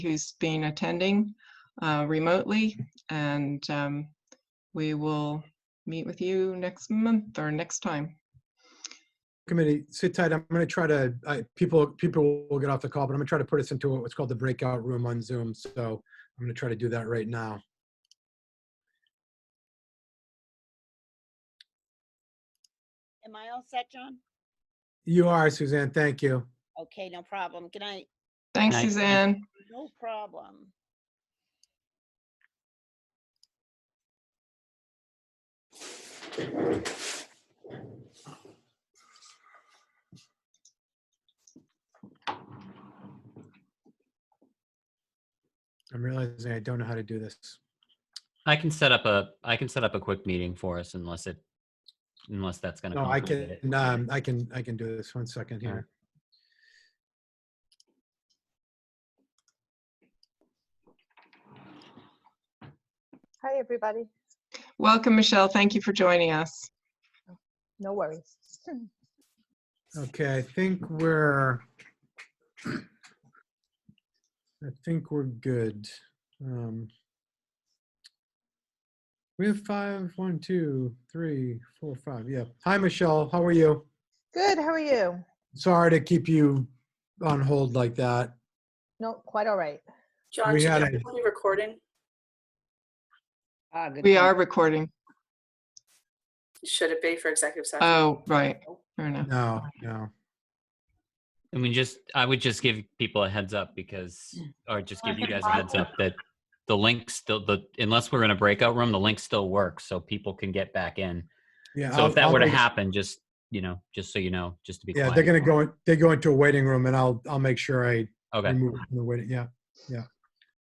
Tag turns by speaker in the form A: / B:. A: who's been attending uh, remotely. And um, we will meet with you next month or next time.
B: committee, sit tight. I'm going to try to, I, people, people will get off the call, but I'm going to try to put us into what's called the breakout room on Zoom. So I'm going to try to do that right now.
C: Am I all set, John?
B: You are, Suzanne. Thank you.
C: Okay, no problem. Good night.
A: Thanks,
D: Nice.
A: Suzanne.
C: No problem.
B: I'm realizing I don't know how to do this.
D: I can set up a, I can set up a quick meeting for us unless it, unless that's gonna.
B: No, I
D: complicate
B: can,
D: it.
B: um, I can, I can do this. One second here.
E: Hi, everybody.
A: Welcome, Michelle. Thank you for joining us.
E: No worries.
B: Okay, I think we're, I think we're good. Um, We have five, one, two, three, four, five. Yeah. Hi, Michelle. How are you?
E: Good, how are you?
B: Sorry to keep you on hold like that.
E: No, quite all right.
F: John,
B: We
F: should
B: had
F: I
B: a-
F: be recording?
C: Ah, good
A: We
C: point.
A: are recording.
F: Should it be for executive session?
A: Oh, right. Fair enough.
B: No, no.
D: I mean, just, I would just give people a heads up because,
B: Mm.
D: or just give you guys a heads up that the link still, the, unless we're in a breakout room, the link still works so people can get back in.
B: Yeah.
D: So
B: I'll-
D: if that were to
B: I'll make-
D: happen, just, you know, just so you know, just to be
B: Yeah,
D: quiet.
B: they're gonna go, in- they go into a waiting room and I'll, I'll make sure I
D: Okay,
B: remove them from the waiting, yeah, yeah.